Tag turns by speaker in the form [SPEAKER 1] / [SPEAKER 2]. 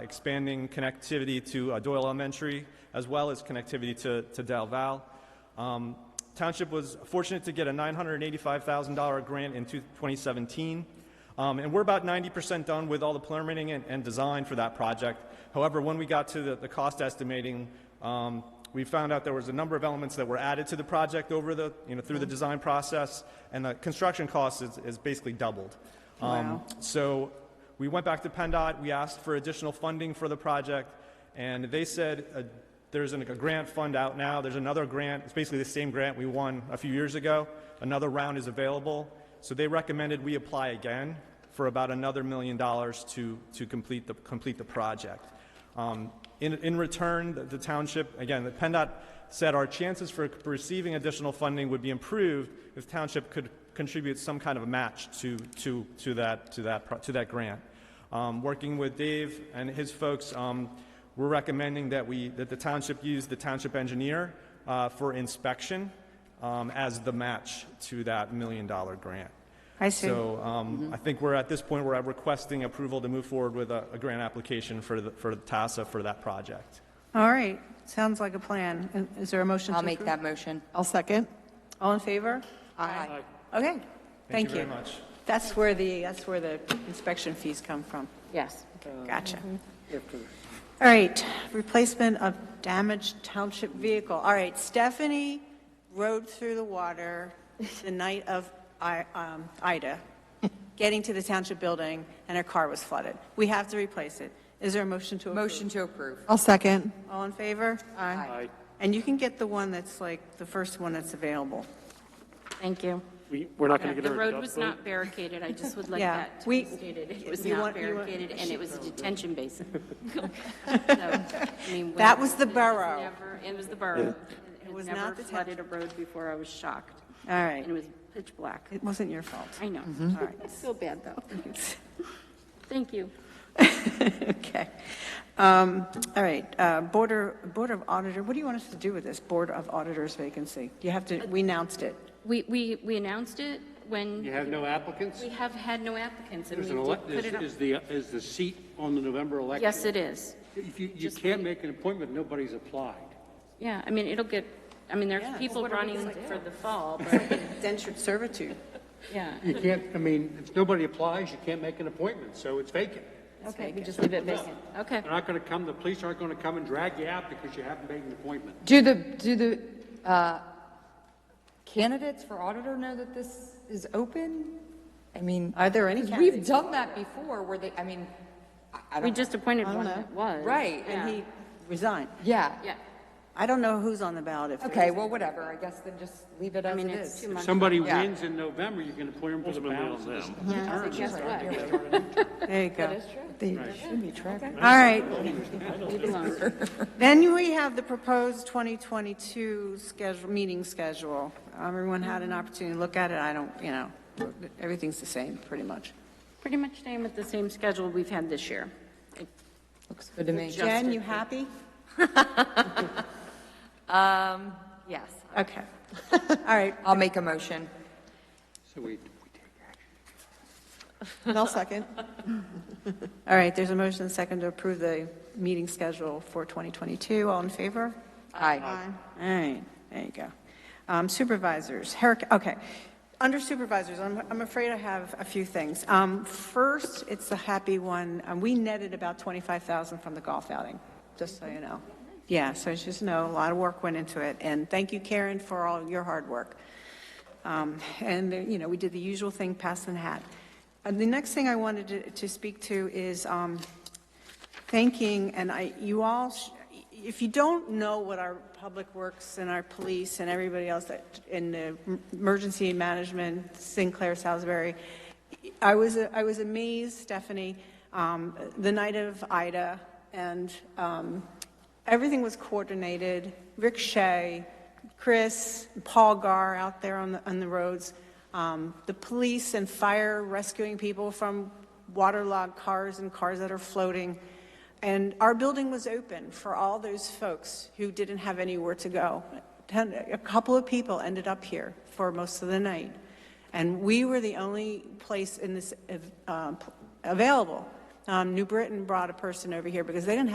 [SPEAKER 1] expanding connectivity to uh, Doyle Elementary, as well as connectivity to, to Del Val. Um, Township was fortunate to get a $985,000 grant in two- 2017, um, and we're about 90% done with all the permitting and, and design for that project. However, when we got to the, the cost estimating, um, we found out there was a number of elements that were added to the project over the, you know, through the design process, and the construction cost is, is basically doubled. Um,
[SPEAKER 2] Wow.
[SPEAKER 1] So we went back to PennDOT, we asked for additional funding for the project, and they said uh, there's an- a grant fund out now, there's another grant, it's basically the same grant we won a few years ago, another round is available, so they recommended we apply again for about another million dollars to, to complete the, complete the project. Um, In, in return, the- the township, again, the PennDOT said our chances for receiving additional funding would be improved if township could contribute some kind of a match to, to, to that, to that, pro- to that grant. Um, Working with Dave and his folks, um, we're recommending that we, that the township use the township engineer uh, for inspection um, as the match to that million-dollar grant.
[SPEAKER 2] I see. Mm-hmm.
[SPEAKER 1] So um, I think we're at this point where I'm requesting approval to move forward with a a grant application for the, for TASA for that project.
[SPEAKER 2] All right, sounds like a plan. Is there a motion to
[SPEAKER 3] I'll
[SPEAKER 2] approve?
[SPEAKER 3] make that motion.
[SPEAKER 4] I'll second.
[SPEAKER 2] All in favor?
[SPEAKER 3] Aye.
[SPEAKER 2] Okay, thank you.
[SPEAKER 1] very much.
[SPEAKER 2] That's where the, that's where the inspection fees come from.
[SPEAKER 3] Yes. Mm-hmm.
[SPEAKER 2] Gotcha. All right, replacement of damaged township vehicle. All right, Stephanie rode through the water the night of I- um, Ida, getting to the township building, and her car was flooded. We have to replace it. Is there a motion to approve?
[SPEAKER 3] Motion to approve.
[SPEAKER 4] I'll second.
[SPEAKER 2] All in favor?
[SPEAKER 3] Aye.
[SPEAKER 2] And you can get the one that's like, the first one that's available.
[SPEAKER 5] Thank you.
[SPEAKER 6] We, we're not going to
[SPEAKER 5] The
[SPEAKER 6] get her a
[SPEAKER 5] road
[SPEAKER 6] duck
[SPEAKER 5] was
[SPEAKER 6] boat?
[SPEAKER 5] not barricaded, I just would like
[SPEAKER 2] Yeah,
[SPEAKER 5] that to
[SPEAKER 2] we-
[SPEAKER 5] be stated. It was
[SPEAKER 2] you
[SPEAKER 5] not
[SPEAKER 2] want- you want-
[SPEAKER 5] barricaded, and it was a detention basin. So, I mean,
[SPEAKER 2] That
[SPEAKER 5] when-
[SPEAKER 2] was the
[SPEAKER 5] it
[SPEAKER 2] borough.
[SPEAKER 5] never- It was the borough. It
[SPEAKER 2] was
[SPEAKER 5] was
[SPEAKER 2] not
[SPEAKER 5] never
[SPEAKER 2] the
[SPEAKER 5] flooded a road before, I was shocked.
[SPEAKER 2] All right.
[SPEAKER 5] And it was pitch black.
[SPEAKER 2] It Mm-hmm. wasn't your fault.
[SPEAKER 5] I know.
[SPEAKER 2] All right.
[SPEAKER 5] I feel bad, though. Thank you.
[SPEAKER 2] Okay. Um, All right, uh, Border, Board of Auditor, what do you want us to do with this Board of Auditors vacancy? You have to, we announced it.
[SPEAKER 5] We, we, we announced it
[SPEAKER 6] You
[SPEAKER 5] when
[SPEAKER 6] have no applicants?
[SPEAKER 5] we have had no applicants, and we
[SPEAKER 6] There's an
[SPEAKER 5] did
[SPEAKER 6] elec-
[SPEAKER 5] put
[SPEAKER 6] Is
[SPEAKER 5] it up.
[SPEAKER 6] is the, is the seat on the November election?
[SPEAKER 5] Yes, it is.
[SPEAKER 6] If you, you
[SPEAKER 5] Just
[SPEAKER 6] can't
[SPEAKER 5] wait.
[SPEAKER 6] make an appointment, nobody's applied.
[SPEAKER 5] Yeah, I mean, it'll get, I mean, there's people running for the fall, but,
[SPEAKER 2] Dentured servitude.
[SPEAKER 5] yeah.
[SPEAKER 6] You can't, I mean, if nobody applies, you can't make an appointment, so it's vacant.
[SPEAKER 5] Okay, we just leave it vacant. Okay.
[SPEAKER 6] They're not going to come, the police aren't going to come and drag you out because you haven't made an appointment.
[SPEAKER 3] Do the, do the uh, candidates for auditor know that this is open? I mean.
[SPEAKER 2] Are there any
[SPEAKER 3] 'cause We've
[SPEAKER 2] candidates?
[SPEAKER 3] done that before where they, I mean, I- I
[SPEAKER 5] We
[SPEAKER 3] don't,
[SPEAKER 5] just appointed
[SPEAKER 2] I don't
[SPEAKER 5] one
[SPEAKER 2] know.
[SPEAKER 5] that was.
[SPEAKER 3] Right,
[SPEAKER 2] And
[SPEAKER 5] Yeah.
[SPEAKER 2] he resigned.
[SPEAKER 3] yeah.
[SPEAKER 5] Yeah.
[SPEAKER 2] I don't know who's on the ballot if.
[SPEAKER 3] Okay, well, whatever, I guess then just leave it
[SPEAKER 5] I
[SPEAKER 3] as
[SPEAKER 5] mean,
[SPEAKER 3] it
[SPEAKER 5] it's
[SPEAKER 3] is.
[SPEAKER 5] two
[SPEAKER 6] If
[SPEAKER 5] months.
[SPEAKER 6] somebody
[SPEAKER 3] Yeah.
[SPEAKER 6] wins in November, you can appoint them for the balance of this
[SPEAKER 5] Yeah, so guess what?
[SPEAKER 2] There you go.
[SPEAKER 4] They should be tracking.
[SPEAKER 2] All right,
[SPEAKER 5] Leave it alone.
[SPEAKER 2] then we have the proposed 2022 schedule, meeting schedule. Everyone had an opportunity to look at it, I don't, you know, everything's the same, pretty much.
[SPEAKER 5] Pretty much staying with the same schedule we've had this year.
[SPEAKER 3] Looks good to me.
[SPEAKER 2] Jen, you happy?
[SPEAKER 3] Yes.
[SPEAKER 2] Okay. All right,
[SPEAKER 3] I'll make a motion.
[SPEAKER 6] So we,
[SPEAKER 4] I'll second.
[SPEAKER 2] All right, there's a motion and second to approve the meeting schedule for 2022. All in favor?
[SPEAKER 3] Aye.
[SPEAKER 2] All right, there you go. Um, Supervisors, Herrick, okay. Under supervisors, I'm, I'm afraid I have a few things. Um, First, it's the happy one, Um, we netted about 25,000 from the golf outing, just so you know. Yeah, so it's just know, a lot of work went into it, and thank you, Karen, for all your hard work. Um, And, you know, we did the usual thing, passing the hat. And the next thing I wanted to, to speak to is, um, thanking, and I, you all, sh- if you don't know what our public works and our police and everybody else that, in the emergency management, Sinclair, Salisbury, I was, I was amazed, Stephanie, um, the night of Ida, and, um, everything was coordinated. Rick Shea, Chris, Paul Gar out there on the, on the roads, um, the police and fire rescuing people from waterlogged cars and cars that are floating. And our building was open for all those folks who didn't have anywhere to go. Ten, a couple of people ended up here for most of the night. And we were the only place in this, uh, available. Um, New Britain brought a person over here because they didn't